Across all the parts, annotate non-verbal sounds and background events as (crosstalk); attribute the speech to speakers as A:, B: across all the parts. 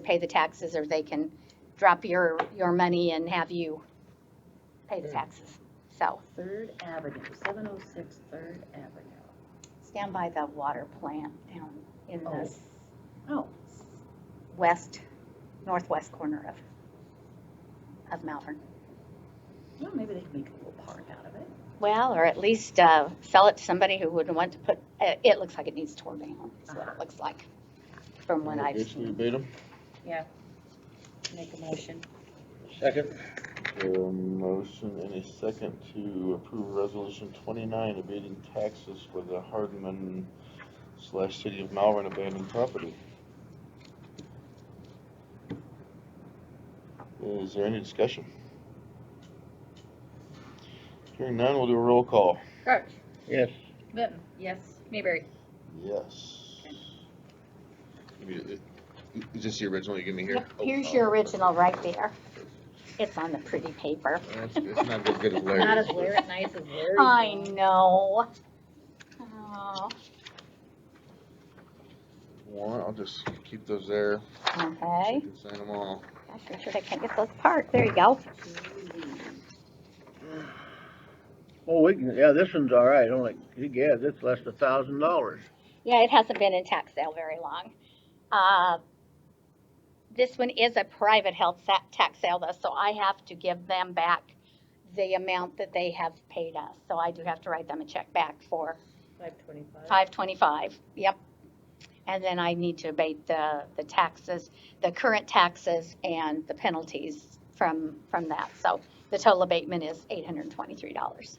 A: pay the taxes or they can drop your, your money and have you pay the taxes. So
B: Third Avenue, seven oh six Third Avenue.
A: stand by the water plant down in the s-
B: Oh.
A: west, northwest corner of, of Malvern.
B: Well, maybe they can make a little park out of it.
A: Well, or at least uh, sell it to somebody who would want to put, uh, it looks like it needs torn down, is what it looks like, from what I've
C: Guess we
A: seen.
C: beat 'em.
B: Make a motion.
D: Second.
C: There are Um, motion and a second to approve resolution twenty-nine abating taxes for the Hardman slash City of Malvern abandoned property. Is there any discussion? Hearing none, we'll do a roll call.
E: Crouch,
D: Yes.
E: Benton,
B: Yes.
E: Mayberry.
C: Yes. Is this the original you give me Oh,
A: Yep, Here's your original right there. It's on the pretty paper.
C: It's not as
A: (laughs)
C: good as
E: Not as weird, nice as Larry's.
A: I know. Oh,
C: One, I'll just keep those there.
A: Okay,
C: She can sign them all.
A: gosh, I'm sure I can't get those apart, there you go.
D: Oh, we can, yeah, this one's all right, only, yeah, it's less than a thousand dollars.
A: Yeah, it hasn't been in tax sale very long. Uh, This one is a private health sa- tax sale though, so I have to give them back the amount that they have paid us. So I do have to write them a check back for
E: Five twenty-five.
A: five twenty-five, yep. And then I need to abate the, the taxes, the current taxes and the penalties from, from that. So the total abatement is eight hundred and twenty-three dollars.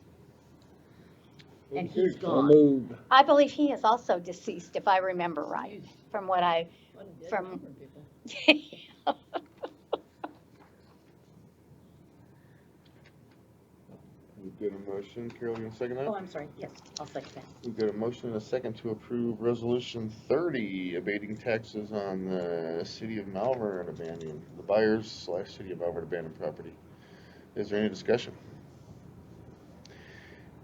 B: And he's
D: So
B: gone.
D: moved.
A: I believe he is also deceased, if I remember right, from what I From-
C: We've got a motion, Carol, you want to second
B: Oh,
C: that?
B: I'm sorry, yes, I'll second that.
C: We've got a motion and a second to approve resolution thirty, abating taxes on the city of Malvern abandoned, the buyers slash city of Malvern abandoned property. Is there any discussion?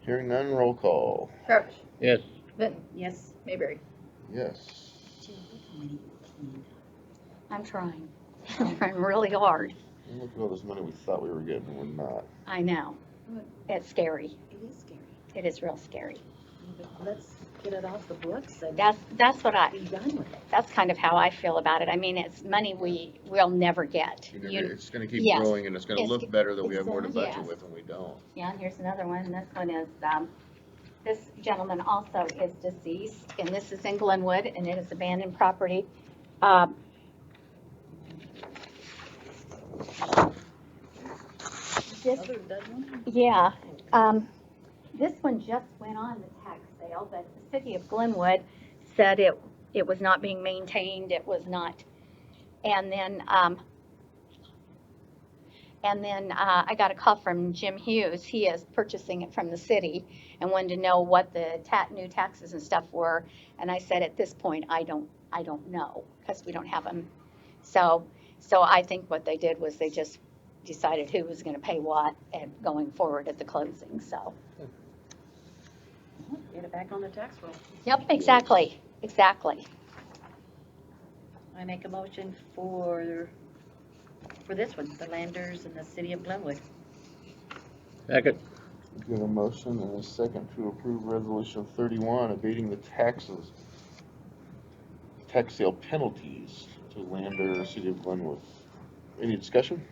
C: Hearing none, roll call.
E: Crouch,
D: Yes.
E: Benton,
B: Yes.
E: Mayberry.
C: Yes.
B: Gee, look how many cleaned
A: I'm trying. (laughs) I'm trying really hard.
C: And Look at all this money we thought we were getting, we're not.
A: I know. It's scary.
B: up. It is scary.
A: It is real scary.
B: But Let's get it off the books and
A: That's, that's what I,
B: be done with it.
A: that's kind of how I feel about it. I mean, it's money we will never get.
C: You
A: You-
C: never- It's gonna keep
A: yes.
C: growing and it's gonna
A: It's-
C: look better that we have more to
A: exactly.
C: budget
A: Yes.
C: with and we don't.
A: Yeah, and here's another one. This one is, um, this gentleman also is deceased, and this is in Glenwood, and it is abandoned property. Um, This,
E: Other than that one?
A: yeah, um, this one just went on the tax sale, but the city of Glenwood said it, it was not being maintained, it was not. And then, um, and then, uh, I got a call from Jim Hughes, he is purchasing it from the city and wanted to know what the ta, new taxes and stuff were. And I said, at this point, I don't, I don't know, because we don't have them. So, so I think what they did was they just decided who was gonna pay what and going forward at the closing, so.
B: Get it back on the tax roll.
A: Yep, exactly, exactly.
B: I make a motion for, for this one, the Landers and the City of Glenwood.
D: Second.
C: We have a motion and a second to approve resolution thirty-one abating the taxes, tax sale penalties to Lander, City of Glenwood. Any discussion?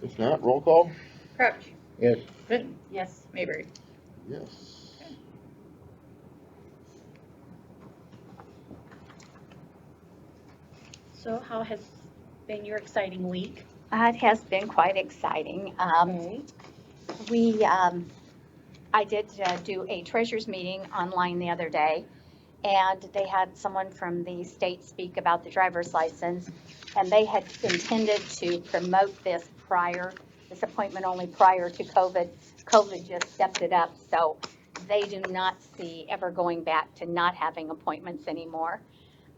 C: If not, roll call?
E: Crouch,
D: Yes.
E: Benton,
B: Yes.
E: Mayberry.
C: Yes.
B: So how has been your exciting week?
A: Uh, It has been quite exciting. Um, we, um, I did uh, do a treasurers meeting online the other day, and they had someone from the state speak about the driver's license, and they had intended to promote this prior, this appointment only prior to COVID. COVID just stepped it up, so they do not see ever going back to not having appointments anymore.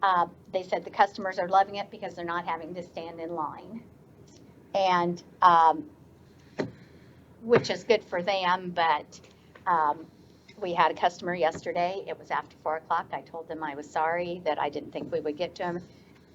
A: Uh, They said the customers are loving it because they're not having to stand in line. And um, which is good for them, but, um, we had a customer yesterday, it was after four o'clock, I told them I was sorry, that I didn't think we would get to him.